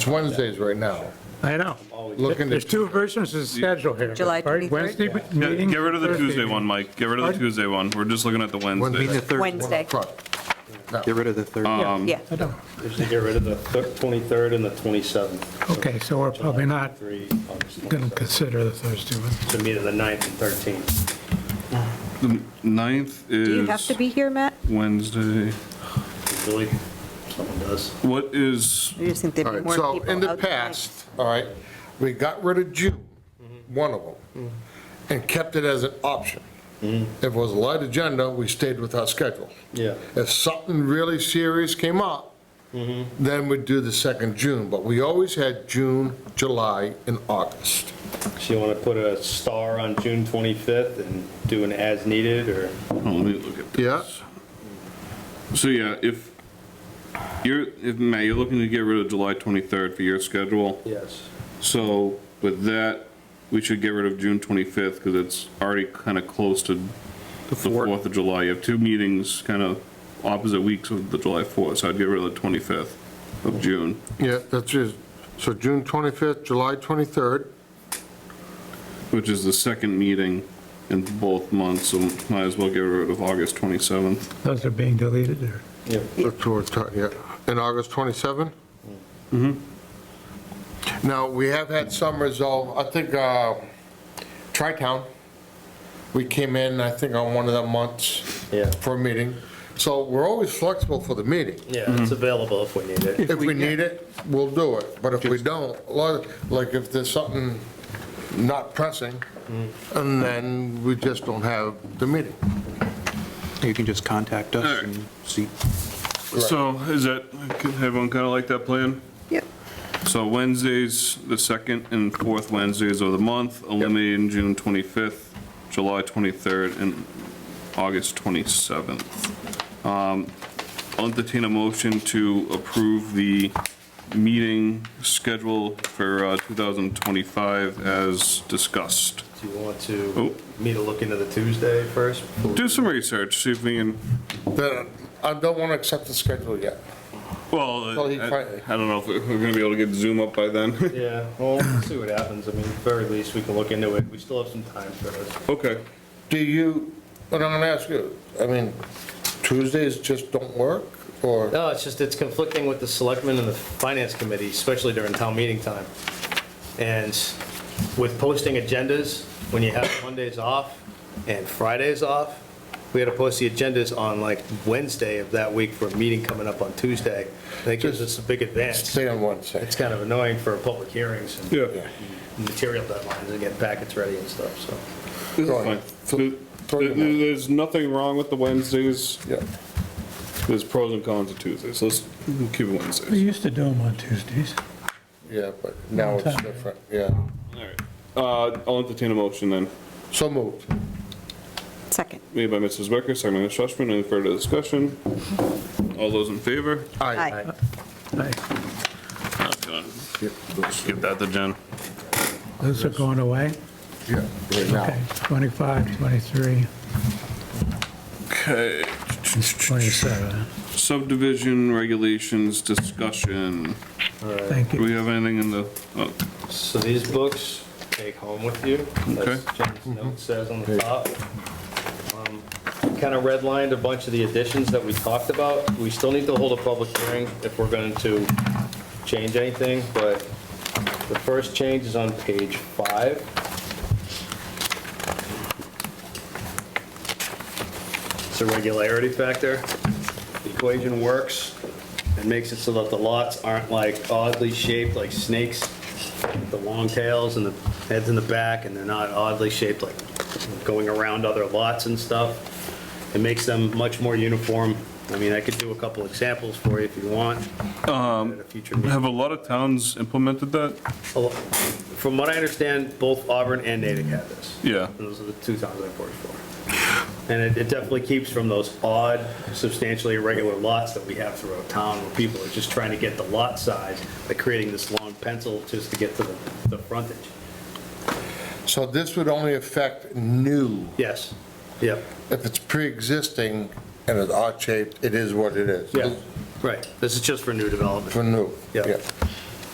It's Wednesdays right now. I know. Looking There's to, two versions of schedule here. July right? 23rd? Wednesday Yeah, meeting. Get rid of the Thursday Tuesday meeting. one, Mike. Get rid of the Pardon? Tuesday one. We're just looking at the Wednesday. Wednesday, Get rid of the third. yeah. I don't, Is to get rid of the thir- 23rd and the 27th. okay, so we're probably not Three, August going 27th. to consider the Thursday one. So meet at the 9th and 13th. The Ninth Do you have is to be here, Matt? Wednesday. Really, someone does. What is, I just think all there'd be right, more people so in the out tonight. past, all right, we got rid of June, one of them, and kept it as an option. If it was a light agenda, we stayed with our schedule. Yeah. If something really serious came up, then we'd do the second June, but we always had June, July, and August. So you want to put a star on June 25th and do an as needed, or? oh, let me look at Yeah. this. So yeah, if you're, if, Matt, you're looking to get rid of July 23rd for your schedule. Yes. So with that, we should get rid of June 25th because it's already kind of close to the 4th of July. You have two meetings, kind of opposite weeks of the July 4th, so I'd get rid of the 25th of June. Yeah, that's just, so June 25th, July 23rd, which is the second meeting in both months, so might as well get rid of August 27th. Those are being deleted or? That's what we're talking, yeah, and August 27? Mm-hmm. Now, we have had some resolve, I think, uh, Tri-Town, we came in, I think, on one of the months Yeah. for a meeting, so we're always flexible for the meeting. Yeah, it's available if we need it. If we need it, we'll do it, but if we don't, a lot of- like, if there's something not pressing, and then we just don't have the meeting. You can just contact us and see. So is that, everyone kind of like that plan? Yep. So Wednesdays, the second and fourth Wednesdays of the month, eliminating June 25th, July 23rd, and August 27th. Um, I'll entertain a motion to approve the meeting schedule for uh, 2025 as discussed. Do you want Oh. to, me to look into the Tuesday first? Do some research, see if we can The- I don't want to accept the schedule yet. Well, Well, I he probably- I don't know if we're gonna be able to get Zoom up by then. Yeah, well, we'll see what happens. I mean, at very least, we can look into it. We still have some time for this. Okay. Do you, what I'm gonna ask you, I mean, Tuesdays just don't work, or, No, it's just, it's conflicting with the selectmen and the finance committee, especially during town meeting time. And with posting agendas, when you have Mondays off and Fridays off, we had to post the agendas on like Wednesday of that week for a meeting coming up on Tuesday. That gives us a big advance. stay on one It's side? kind of annoying for public hearings Yeah. and material deadlines and getting packets ready and stuff, so. This Go on. is fine. There- there- There's nothing wrong with the Wednesdays. Yeah. There's pros and cons to Tuesdays. Let's keep it We Wednesdays. used to do them on Tuesdays. Yeah, but now it's different, yeah. All right. Uh, I'll entertain a motion then, So moved. Second. made by Mrs. Becker, second by Ms. Schlesman. Any further discussion? All those in favor? Aye. Aye. Aye. Give that to Jen. Those are going away? Yeah, right Okay, now. 25, 23, Okay. 27. Subdivision regulations discussion. Thank Do you. we have anything in the, oh, So these books, take home with you. That's Jen's note says on the top. Kind of redlined a bunch of the additions that we talked about. We still need to hold a public hearing if we're going to change anything, but the first change is on page five. It's a regularity factor. The equation works and makes it so that the lots aren't like oddly shaped like snakes the long tails and the heads in the back, and they're not oddly shaped, like going around other lots and stuff. It makes them much more uniform. I mean, I could do a couple examples for you if you want. At a future meeting. have a lot of towns implemented that? Oh, From what I understand, both Auburn and Natick have this. Yeah. And Those are the two towns I've worked for. And it- it definitely keeps from those odd, substantially irregular lots that we have throughout town where people are just trying to get the lot size by creating this long pencil just to get to the, the frontage. So this would only affect new. Yes, yep. If it's pre-existing and it's odd-shaped, it is what it is. Yeah, right. This is just for new development. For new. Yeah.